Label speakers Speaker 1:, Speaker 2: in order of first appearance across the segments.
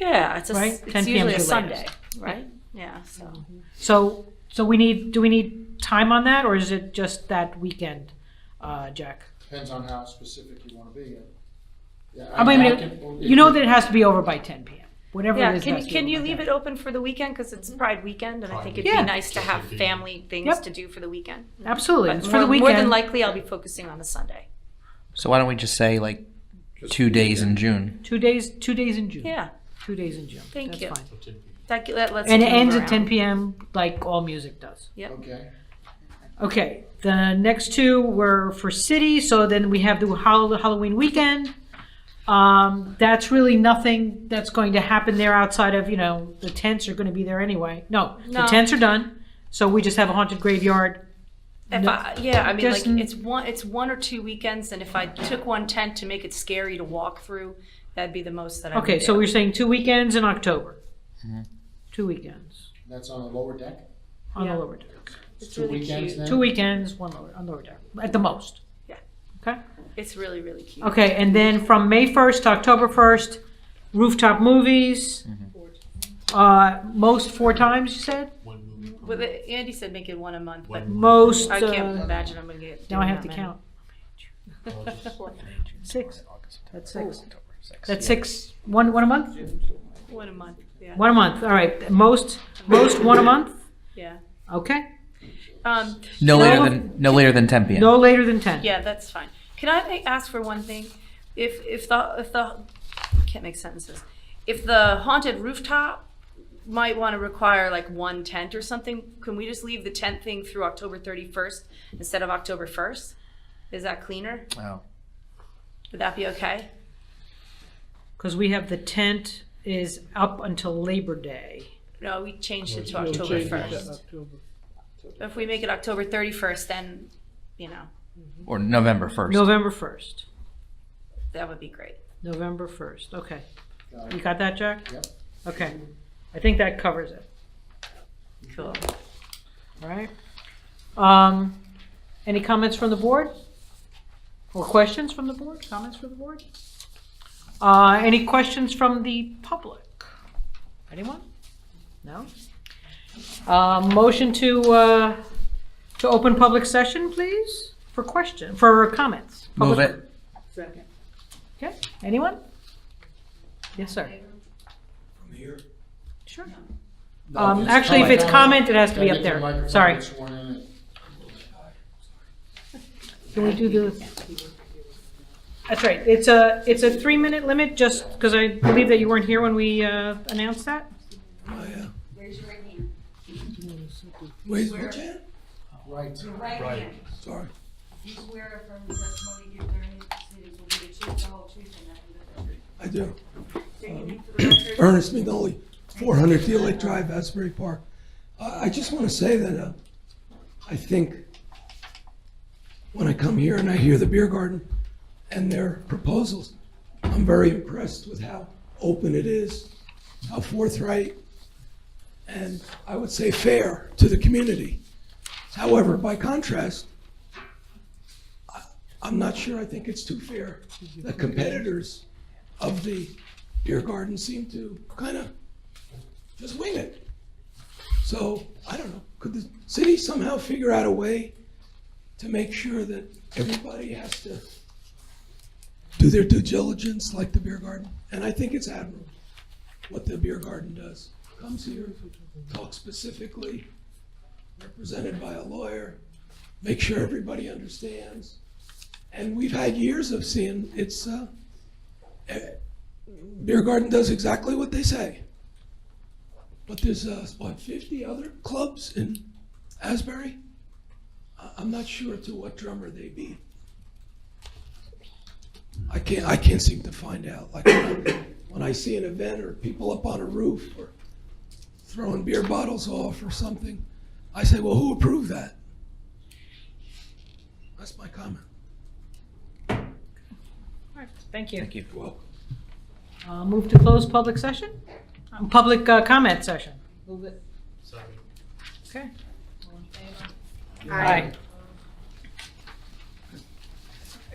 Speaker 1: Yeah, it's a,
Speaker 2: Right?
Speaker 1: s-
Speaker 2: 10
Speaker 1: it's
Speaker 2: p.m.
Speaker 1: usually a
Speaker 2: is the
Speaker 1: Sunday,
Speaker 2: latest. Mm-hmm.
Speaker 1: right? Yeah, so.
Speaker 2: So, so we need, do we need time on that, or is it just that weekend, uh, Jack?
Speaker 3: Depends on how specific you wanna be. Yeah,
Speaker 2: I mean,
Speaker 3: can-
Speaker 2: You know that it has to be over by ten PM, whatever it
Speaker 1: Yeah,
Speaker 2: is.
Speaker 1: can,
Speaker 2: has to be
Speaker 1: can
Speaker 2: over
Speaker 1: you
Speaker 2: by
Speaker 1: leave
Speaker 2: 10.
Speaker 1: it open for the weekend? Because it's Pride weekend and I think it'd
Speaker 2: Yeah.
Speaker 1: be nice to have family things
Speaker 2: Yep.
Speaker 1: to do for the weekend.
Speaker 2: Absolutely,
Speaker 1: But
Speaker 2: it's for
Speaker 1: more-
Speaker 2: the
Speaker 1: More than
Speaker 2: weekend.
Speaker 1: likely, I'll be focusing on the Sunday.
Speaker 4: So why don't we just say like
Speaker 3: Just-
Speaker 4: two days in June?
Speaker 2: Two days, two days in June.
Speaker 1: Yeah,
Speaker 2: Two days in June.
Speaker 1: Thank
Speaker 2: That's
Speaker 1: you.
Speaker 2: fine.
Speaker 1: that, g- that lets.
Speaker 2: And it
Speaker 1: people
Speaker 2: ends at
Speaker 1: around.
Speaker 2: ten PM, like all music does.
Speaker 3: Okay,
Speaker 2: Okay, the next two were for city, so then we have the Hall- Halloween weekend. Um, that's really nothing that's going to happen there outside of, you know, the tents are gonna be there anyway. No, the
Speaker 1: No.
Speaker 2: tents are done, so we just have a haunted graveyard.
Speaker 1: If
Speaker 2: No.
Speaker 1: I, yeah, I mean, like,
Speaker 2: Just-
Speaker 1: it's one, it's one or two weekends, and if I took one tent to make it scary to walk through, that'd be the most that I would do.
Speaker 2: Okay, so we're saying two weekends in October. Two weekends
Speaker 3: that's on the lower deck?
Speaker 2: on the
Speaker 1: Yeah.
Speaker 2: lower deck.
Speaker 1: It's
Speaker 3: Two
Speaker 1: really
Speaker 3: weekends
Speaker 1: cute.
Speaker 3: then?
Speaker 2: Two weekends, one lower, on lower deck, at the most.
Speaker 1: Yeah.
Speaker 2: Okay?
Speaker 1: It's really, really cute.
Speaker 2: Okay, and then from May 1st to October 1st, rooftop movies, uh, most four times, you said?
Speaker 5: One movie. per
Speaker 1: Well,
Speaker 5: month.
Speaker 1: the- Andy said make it one a month, but
Speaker 5: One movie.
Speaker 2: Most,
Speaker 1: I can't
Speaker 2: uh,
Speaker 1: imagine I'm gonna get.
Speaker 2: now I
Speaker 1: doing that
Speaker 2: have to
Speaker 1: many.
Speaker 2: count.
Speaker 5: I'll just-
Speaker 2: Six. That's six.
Speaker 4: October, six.
Speaker 2: That's six, one, one a month?
Speaker 1: One a month, yeah,
Speaker 2: One a month, all right, most, most one a month,
Speaker 1: yeah.
Speaker 2: okay?
Speaker 1: Um,
Speaker 4: No
Speaker 1: Can I
Speaker 4: later
Speaker 1: have-
Speaker 4: than no later than 10 p.m.
Speaker 2: No later than 10.
Speaker 1: yeah, that's fine. Can I ma- ask for one thing? If, if the, if the, can't make sentences. If the haunted rooftop might want to require like one tent or something, can we just leave the tent thing through October thirty-first instead of October first? Is that cleaner?
Speaker 4: Oh.
Speaker 1: Would that be okay?
Speaker 2: Because we have the tent is up until Labor Day.
Speaker 1: No, we changed it to
Speaker 5: We'll
Speaker 1: October
Speaker 5: change it to
Speaker 1: first. If we make it October thirty-first, then, you know,
Speaker 4: Or November 1st.
Speaker 2: November 1st,
Speaker 1: that would be great.
Speaker 2: November 1st, okay.
Speaker 3: Got
Speaker 2: You
Speaker 3: it.
Speaker 2: got that, Jack?
Speaker 3: Yep.
Speaker 2: Okay, I think that covers it.
Speaker 1: Cool.
Speaker 2: Right. Um, any comments from the board? Or questions from the board? Comments from the board? Uh, any questions from the public? Anyone? No? Uh, motion to, uh, to open public session, please, for question, for comments?
Speaker 4: Move
Speaker 2: Public-
Speaker 4: it.
Speaker 2: Okay, anyone? Yes, sir.
Speaker 6: From here?
Speaker 2: Sure.
Speaker 3: No,
Speaker 2: Um, actually, if it's
Speaker 3: comment,
Speaker 2: comment, it has to be
Speaker 3: gotta
Speaker 2: up
Speaker 3: get the
Speaker 2: there.
Speaker 3: microphone
Speaker 2: Sorry.
Speaker 3: sworn in and-
Speaker 2: Can we do the? That's right, it's a, it's a three-minute limit, just because I believe that you weren't here when we uh, announced that.
Speaker 6: Oh, yeah.
Speaker 7: Raise your right hand.
Speaker 6: Where's my chair?
Speaker 3: Right.
Speaker 7: Your right hand.
Speaker 6: Sorry.
Speaker 7: Do you swear affirm the testimony you give during these proceedings will be the truth, the whole truth, and nothing but the truth?
Speaker 6: I do.
Speaker 7: State your name for the record.
Speaker 6: Ernest McNolly, 400 Deal Lake Drive, Asbury Park. I I just want to say that uh, I think when I come here and I hear the Beer Garden and their proposals, I'm very impressed with how open it is, how forthright, and I would say fair to the community. However, by contrast, I- I'm not sure I think it's too fair that competitors of the beer garden seemed to kind of just wing it. So, I don't know, could the city somehow figure out a way to make sure that everybody has to do their due diligence like the beer garden? And I think it's admirable what the beer garden does. Comes here, talks specifically, represented by a lawyer, make sure everybody understands. And we've had years of seeing it's, uh, eh, Beer Garden does exactly what they say. But there's, uh, what, 50 other clubs in Asbury? I- I'm not sure to what drummer they beat. I can't, I can't seem to find out. Like, when I- when I see an event or people up on a roof or throwing beer bottles off or something, I say, well, who approved that? That's my comment.
Speaker 2: All right, Thank you.
Speaker 4: Thank you.
Speaker 6: Well,
Speaker 2: Uh, Move to close public session? Um, Public uh, comment session? Move it.
Speaker 5: Sorry.
Speaker 2: Okay. Aye.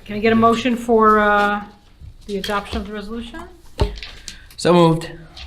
Speaker 2: Can I get a motion for uh, the adoption of the resolution?
Speaker 4: So moved.